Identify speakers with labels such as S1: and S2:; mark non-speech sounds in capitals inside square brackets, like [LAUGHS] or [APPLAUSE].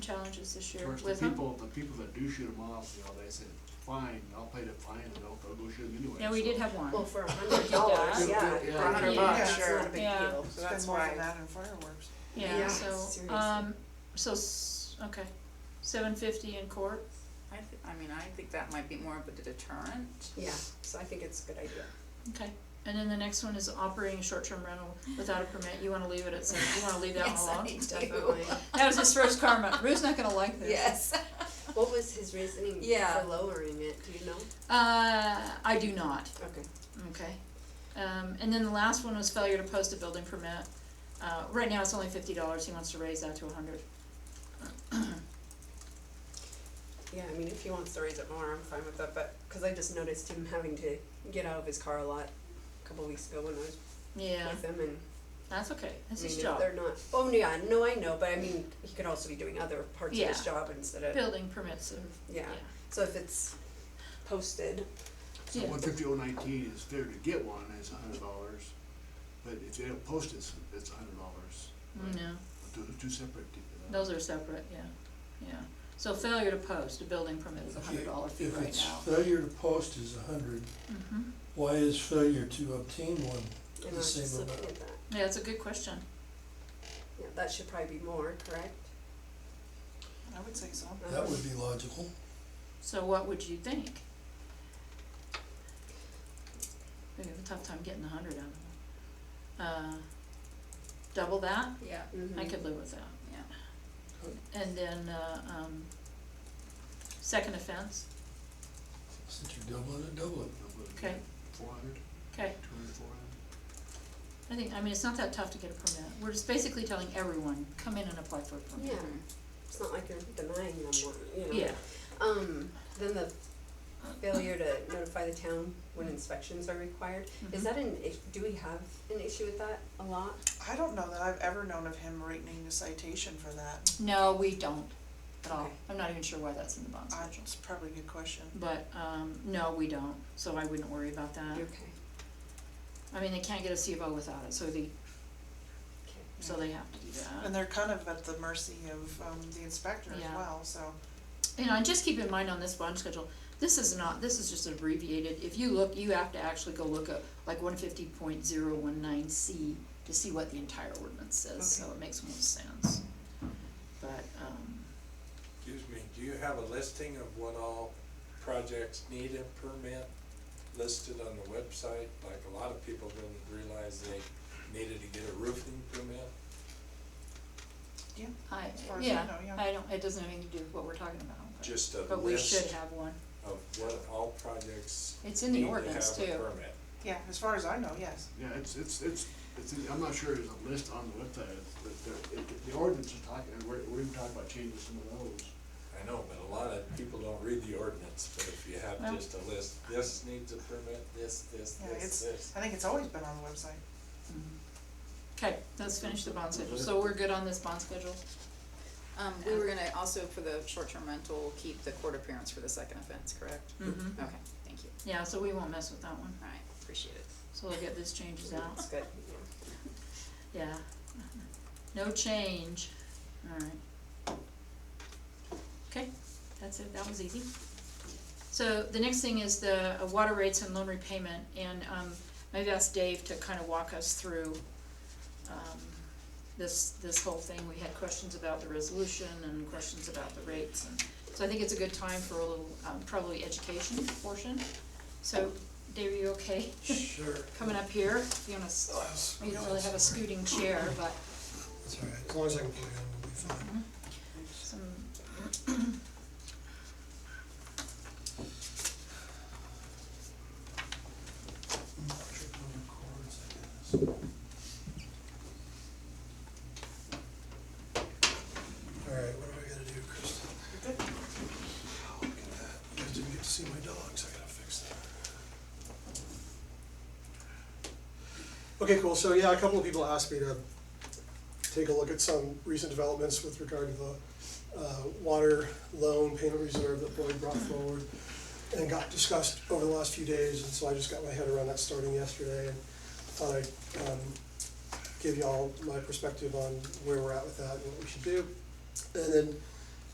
S1: challenges this year
S2: Of course,
S1: with
S2: the
S1: them.
S2: people, the people that do shoot them off, you know, they said, fine, I'll pay the fine and they'll, they'll go shoot them anyway.
S3: Yeah, we
S2: so-
S3: did have one.
S4: Well, for a hundred [LAUGHS] dollars, yeah,
S2: Yeah.
S4: for a hundred
S3: Yeah.
S4: bucks,
S5: it's
S4: sure.
S5: not a big
S3: Yeah.
S5: deal, so that's
S6: Spend more than
S5: why,
S6: that on fireworks.
S3: Yeah,
S4: yeah,
S3: so,
S5: seriously.
S3: um, so, s- okay, seven fifty in court,
S7: I thi- I mean, I think that might be more of a deterrent.
S4: yeah, so I think it's a good idea.
S3: okay. And then the next one is operating a short-term rental without a permit, you wanna leave it at seven, you wanna leave
S7: [LAUGHS]
S3: that one
S7: Yes, I
S3: alone?
S7: do.
S3: Definitely. That was his first karma, Rue's not gonna like this.
S7: [LAUGHS] Yes.
S4: [LAUGHS] What was his reasoning
S7: Yeah.
S4: for lowering it, do you know?
S3: Uh, I do not,
S4: Okay.
S3: okay. Um, and then the last one was failure to post a building permit. Uh, right now it's only fifty dollars, he wants to raise that to a hundred.
S4: Yeah, I mean, if he wants to raise it more, I'm fine with that, but, cause I just noticed him having to get out of his car a lot a couple weeks ago when I was
S3: Yeah,
S4: with him and,
S3: that's okay, that's
S4: I mean,
S3: his
S4: if
S3: job.
S4: they're not, oh, yeah, no, I know, but I mean, he could also be doing other parts of his
S3: Yeah.
S4: job instead of,
S3: Building permits, and-
S4: yeah,
S3: yeah.
S4: so if it's posted,
S2: So
S3: Yeah.
S2: one fifty oh nineteen is fair to get one, is a hundred dollars, but if they don't post it, it's a hundred dollars.
S3: Mm, No,
S2: Two, two separate. uh,
S3: those are separate, yeah, yeah. So failure to post a building permit is a hundred dollar fee
S8: If
S3: right
S8: it's
S3: now.
S8: failure to post is a hundred,
S4: Mm-hmm.
S3: hmm
S8: why is failure to obtain one
S4: and I
S8: the
S4: was just
S8: same
S4: looking
S8: amount?
S4: at that,
S3: yeah, that's a good question,
S4: yeah, that should probably be more, correct?
S6: I would say so.
S8: That would be logical.
S3: so what would you think? We have a tough time getting a hundred out of them. Uh, double that,
S7: Yeah.
S4: Mhm.
S3: I could live with that.
S7: Yeah.
S3: Yeah. And then, uh, um, second offense,
S8: Since you're doubling it, double it.
S3: okay,
S2: Four hundred,
S3: okay.
S2: two hundred, four hundred.
S3: I think, I mean, it's not that tough to get a permit, we're just basically telling everyone, come in and apply for a permit.
S4: Yeah, it's not like you're denying them one, you know.
S3: Yeah,
S4: Um, then the failure to notify the town when inspections are required,
S3: Mhm.
S4: is that an, is- do we have an issue with that a lot?
S6: I don't know that I've ever known of him writing a citation for that.
S3: No, we don't at all.
S4: Okay.
S3: I'm not even sure why that's in the bond
S6: Uh,
S3: schedule.
S6: It's probably a good question.
S3: But, um, no, we don't, so I wouldn't worry about that.
S4: Okay,
S3: I mean, they can't get a CFO without it, so they,
S4: okay.
S3: so they have to do that.
S6: And they're kind of at the mercy of, um, the inspector as
S3: Yeah.
S6: well, so.
S3: You know, and just keep in mind on this bond schedule, this is not, this is just abbreviated. If you look, you have to actually go look at like one fifty point zero one nine C to see what the entire ordinance says, so it makes more sense. But, um,
S9: Excuse me, do you have a listing of what all projects need a permit listed on the website? Like a lot of people didn't realize they needed to get a roofing permit.
S3: I,
S6: As far as I
S3: yeah,
S6: know, yeah.
S3: I don't, it doesn't have anything to do with what we're talking about, but-
S9: Just a
S3: but we should
S9: list
S3: have one.
S9: of what all projects
S3: It's in the
S9: need to have a permit.
S3: ordinance too.
S6: Yeah, as far as I know, yes.
S2: Yeah, it's, it's, it's, it's, in- I'm not sure there's a list on the website, it's, but there, it, the ordinance is talking, and we're, we're even talking about changing some of those.
S9: I know, but a lot of people don't read the ordinance, but if you have
S3: Well-
S9: just a list, this needs a permit, this, this,
S6: Yeah,
S9: this,
S6: it's-
S9: this.
S6: I think it's always been on the website.
S3: Okay, let's finish the bond schedule, so we're good on this bond schedule?
S7: Um, we were gonna also for the short-term rental, keep the court appearance for the second offense, correct?
S3: Mm-hmm.
S7: Okay, thank you.
S3: Yeah, so we won't mess with that one,
S7: All right, appreciate it.
S3: so we'll get these changes out,
S4: That's good,
S3: yeah. No change, alright. Okay, that's it, that was easy. So the next thing is the uh, water rates and loan repayment, and, um, maybe ask Dave to kind of walk us through, um, this, this whole thing, we had questions about the resolution and questions about the rates, and, so I think it's a good time for a little, um, probably education portion. So, Dave, are you okay?
S8: Sure.
S3: coming up here, if you wanna, s- you don't really have a scooting chair, but
S8: It's all right, as long as I can play on, we'll be fine.
S3: some,
S8: Trip on the cords, I guess. All right, what do I gotta do, Kristen? Oh, Look at that, you guys didn't get to see my dogs, I gotta fix that.
S10: Okay, cool, so yeah, a couple of people asked me to take a look at some recent developments with regard to the uh, water loan payment reserve that Boyd brought forward and got discussed over the last few days, and so I just got my head around that starting yesterday and thought I'd um, give y'all my perspective on where we're at with that and what we should do. And then